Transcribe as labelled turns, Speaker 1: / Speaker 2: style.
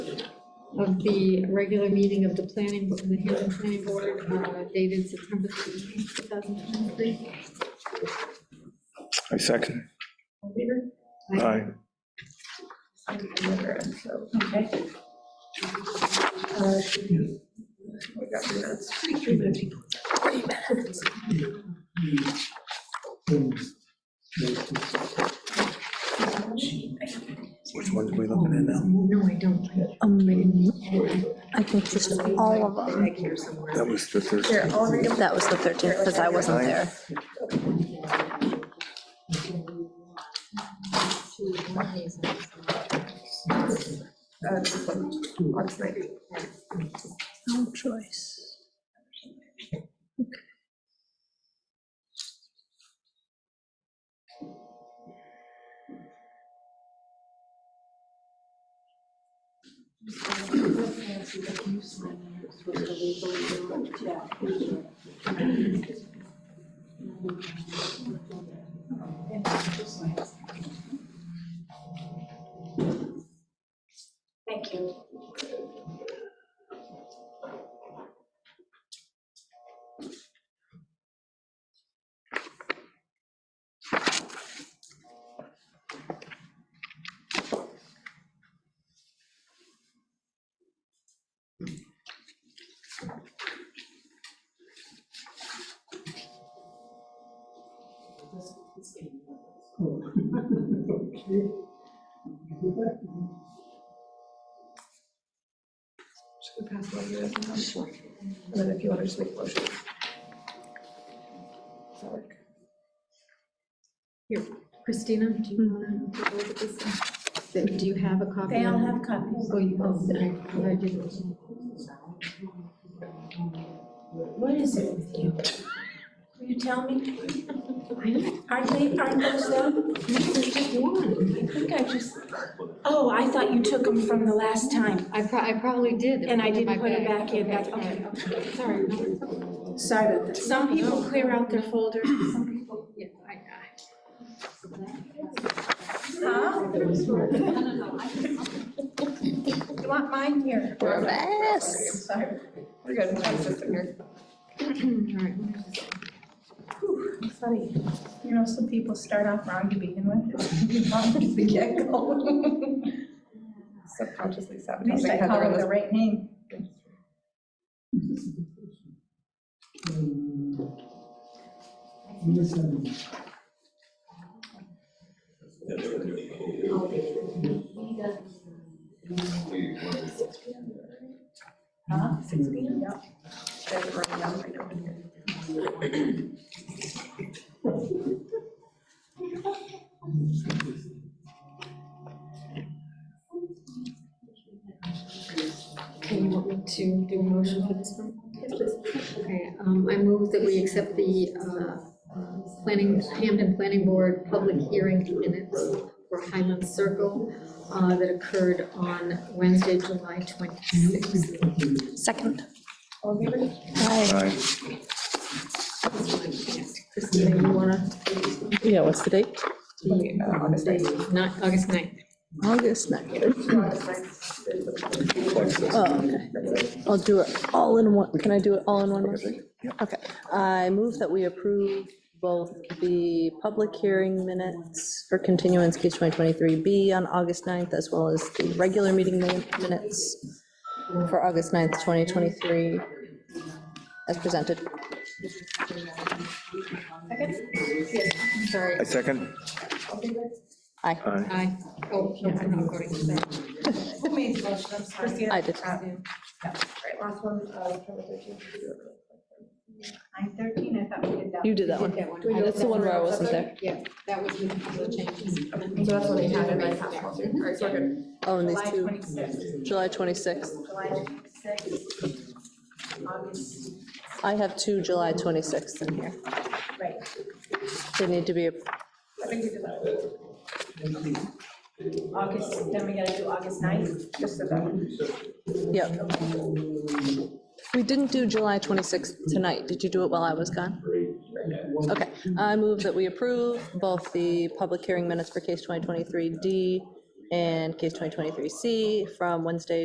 Speaker 1: of the regular meeting of the planning, the Hampton Planning Board uh, dated September 13, 2023.
Speaker 2: I second.
Speaker 1: All in favor?
Speaker 2: Aye.
Speaker 1: Okay. Uh, We got three minutes. Three minutes.
Speaker 2: Which one are we looking at now?
Speaker 1: No, I don't.
Speaker 3: Um, I think just all of them.
Speaker 1: Back here somewhere.
Speaker 2: That was the third.
Speaker 3: Here, I'll read them. That was the 13th, because I wasn't there.
Speaker 1: Uh, this one, August 19th.
Speaker 3: No choice.
Speaker 4: Thank you.
Speaker 1: Should we pass one of yours? And then if you want to just make a motion. Does that work? Here, Christina, do you want to look at this? thing? Do you have a copy?
Speaker 4: They all
Speaker 1: of it?
Speaker 4: have copies.
Speaker 1: Oh, you, oh, sorry, I didn't.
Speaker 4: What is it with you? Will you tell me? Aren't they, aren't those them?
Speaker 1: There's just one.
Speaker 4: I think I just, oh, I thought you took them from the last time,
Speaker 1: I pro, I probably did.
Speaker 4: and I
Speaker 1: It's in my
Speaker 4: didn't put it back in, that's, okay.
Speaker 1: Sorry. no,
Speaker 4: Sorry about that. Some people clear out their folders, some people.
Speaker 1: yeah, I- I-
Speaker 4: Huh? You want mine here?
Speaker 3: Yes.
Speaker 4: Sorry. We're good, I was just in here.
Speaker 1: All right.
Speaker 4: Funny, you know, some people start off wrong to begin with, it's wrong to the get-go.
Speaker 5: subconsciously
Speaker 4: At
Speaker 5: sabotaging
Speaker 4: least I
Speaker 5: Heather
Speaker 4: call
Speaker 5: in
Speaker 4: it the
Speaker 5: this.
Speaker 4: right name. Huh? Six P M? Yep.
Speaker 5: They're running down right now in here.
Speaker 1: Okay, you want me to do a motion for this one? Okay, um, I move that we accept the, uh, uh, planning, Hampton Planning Board public hearing minutes for Highland Circle, uh, that occurred on Wednesday, July twenty-sixth.
Speaker 3: Second.
Speaker 4: All in favor?
Speaker 3: Aye.
Speaker 2: Aye.
Speaker 1: Christina, you wanna?
Speaker 6: Yeah, what's the date?
Speaker 5: Uh, August
Speaker 1: Not, August ninth.
Speaker 6: August Oh, 9th.
Speaker 2: Close
Speaker 6: Oh, okay. I'll do it all in one, can I do it all in one motion? Okay. I move that we approve both the public hearing minutes for continuance case 2023B on August 9th, as well as the regular meeting min- minutes for August 9th, 2023, as presented.
Speaker 1: Sorry,
Speaker 2: I second.
Speaker 3: Aye.
Speaker 2: Aye.
Speaker 1: I, oh, yeah, I'm not voting, sorry.
Speaker 5: Who made the motion? I'm sorry.
Speaker 3: I did.
Speaker 5: Uh, Right, last one, uh, September 13th.
Speaker 4: Nine thirteen, I thought we did that.
Speaker 6: You did that one.
Speaker 1: that one.
Speaker 6: That's the one where I wasn't there.
Speaker 1: Yeah, that was with the changes.
Speaker 5: So that's what they had in my past policy. All right, so we're good.
Speaker 3: Oh, and these
Speaker 4: July
Speaker 3: two,
Speaker 4: twenty-sixth,
Speaker 3: July 26th.
Speaker 4: July twenty-sixth, August,
Speaker 3: I have two July 26th in here.
Speaker 4: right.
Speaker 3: They need to be,
Speaker 4: I think we did that. August, then we gotta do August ninth.
Speaker 5: Just did that one.
Speaker 3: yep. We didn't do July 26th tonight. Did you do it while I was gone? Okay. I move that we approve both the public hearing minutes for case 2023D and case 2023C from Wednesday,